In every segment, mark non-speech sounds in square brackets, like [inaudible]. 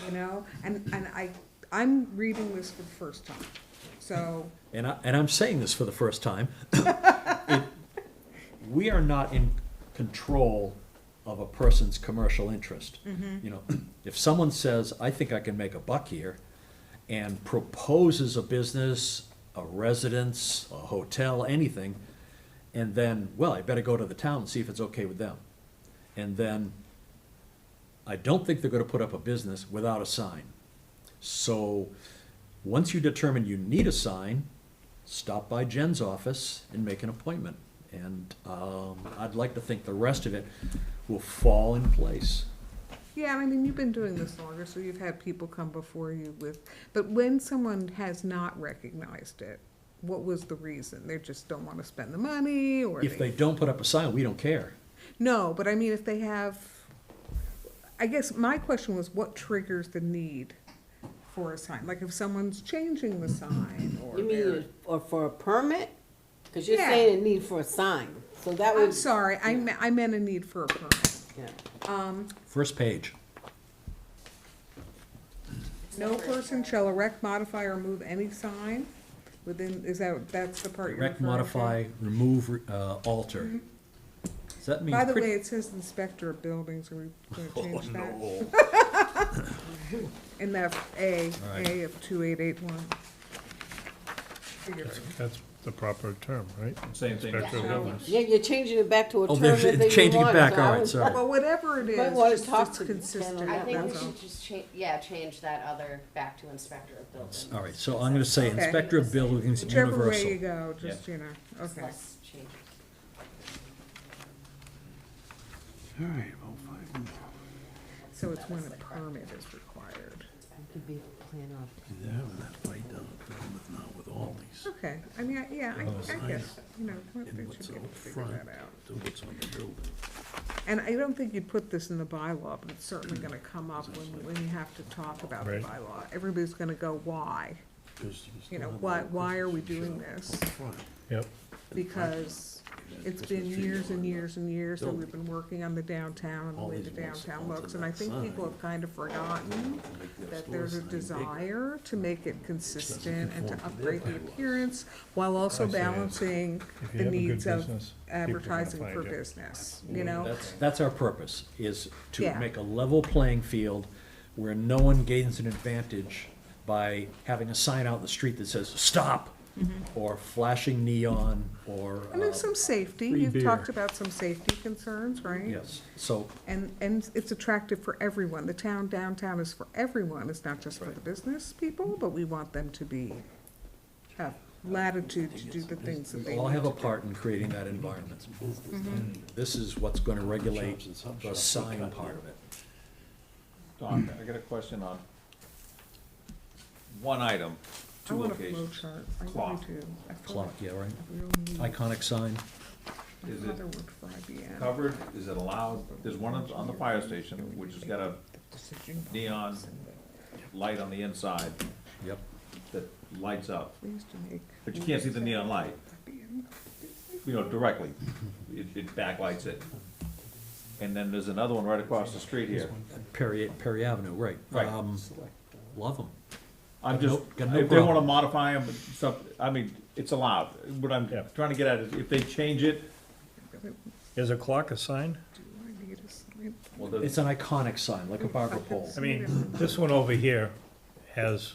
don't know, and, and I, I'm reading this for the first time, so, and I, and I'm saying this for the first time, [coughs] it- we are not in control of a person's commercial interest. You know, [clears throat] if someone says, I think I can make a buck here, and proposes a business, a residence, a hotel, anything, and then, well, I better go to the town and see if it's okay with them. And then, I don't think they're gonna put up a business without a sign. So, once you determine you need a sign, stop by Jen's office and make an appointment. And, um, I'd like to think the rest of it will fall in place. yeah, I mean, you've been doing this longer, so you've had people come before you with, but when someone has not recognized it, what was the reason? They just don't wanna spend the money, or If they don't put up a sign, we don't care. No, but I mean, if they have, I guess my question was what triggers the need for a sign? Like if someone's changing the sign or You they're- mean, or for a permit? Cause you're Yeah. saying it need for a sign, so that I'm would, sorry, I meant, I meant a need for a permit. yeah. First page. No person shall erect, modify, or move any sign within, is that, that's the part you're Direct, referring to? modify, remove, uh, alter. Does that mean? Mm-hmm. By the pretty- way, it says inspector of buildings, are we Oh, gonna change that? no. In that A, Right. A of two eight eight one. That's, that's the proper term, right? [laughs] Same thing. Inspector of buildings. Yeah, you're changing it back to a Oh, term they're that they want. changing it back, so I all right, was- sorry. Well, whatever it Might is, wanna just talk it's to Ken on consistent, that. I think we that's all. should just change, yeah, change that other back to inspector of buildings. All right, so I'm gonna say Okay. inspector of buildings Whichever way you universal. go, just, you know, It's okay. less changes. All right, well, fine. So it's when a permit is required. It could be a plan of- They're having that fight down at Falmouth now with Aldi's. Okay, I mean, I- yeah, I, I guess, you know, they Oh, And should what's be able out to figure front, that out. to what's on the building. And I don't think you'd put this in the bylaw, but it's certainly Hmm. gonna come up when, when you have to talk about the Right. bylaw. Everybody's gonna go, why? 'cause still You know, have why, that why are we Christmas doing shop this? up front. Yep, Because it's been years and years and years that we've been working on the downtown and the way the downtown looks. And I think people have kind of forgotten Make their that store there's a sign bigger. desire to make it consistent and to upgrade the appearance while also I see. balancing If the you have a good needs of business, people are gonna advertising find for you. business, you know? That's, that's our purpose, is to Yeah. make a level playing field where no one gains an advantage by having a sign out in the street that says, stop, or flashing neon, or, And there's Mm-hmm. uh, some safety, you've talked about some safety concerns, right? yes, so, And, and it's attractive for everyone, the town downtown is for everyone, it's not just for the business people, but we want them to be, have latitude to do the things that they all need have a to do. part in creating that environment. This is what's gonna regulate the sign part of it. Don, I got a question on one item, I two want a flow locations. chart, I really Clock. do. I feel Clock, like yeah, right? I really need- Iconic sign, My Is it father worked for IBM. Covered, is it allowed, there's one on- on the fire station, which has got a Decision neon box and the- light on the inside yep. that lights up, They used to make. but you can't see the neon light, IBM. you know, directly. It, it backlights it. And then there's another one right across the street here. Perry, Perry Avenue, right. Right. Um, Love them. I'm Got no- just, got no if they wanna problem. modify them, some, I mean, it's allowed. What I'm Yeah. trying to get at is if they change it, is a clock a sign? Do I need a sign? well, the- It's an iconic sign, like [laughs] a barber pole. I mean, this one over here has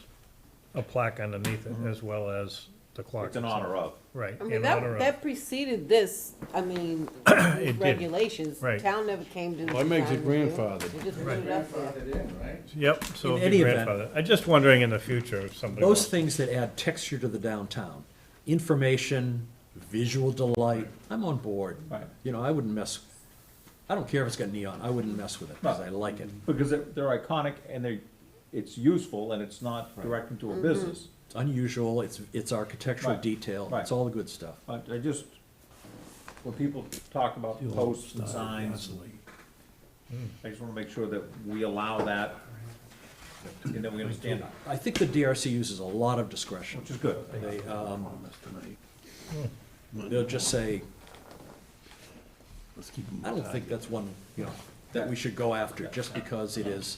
a plaque underneath it as well as the clock. it's in itself. honor of. Right, I in mean, honor that, of. that preceded this, [coughs] I mean, these did, regulations, right. town never came to. Well, it makes design it review. grandfathered. They just put it up there. Yep, so In if any your event- grandfather, I'm just wondering in the future if somebody. Those goes- things that add texture to the downtown, information, visual delight, I'm on board. Right. You know, I wouldn't mess, I don't care if it's got neon, I wouldn't mess with it, because I like it. Because they're, they're iconic and they, it's useful and it's not directing to a business. It's unusual, it's, it's architectural Right, detail, it's right. all the good stuff. But I just, when people talk about posts and signs, I just wanna make sure that we allow that and that we understand it, I think the DRC uses a lot of discretion. which is good. They, um, Promise tonight. [laughs] they'll just say, Let's keep 'em I don't think tied. that's one, you know, that we should go after, just because it is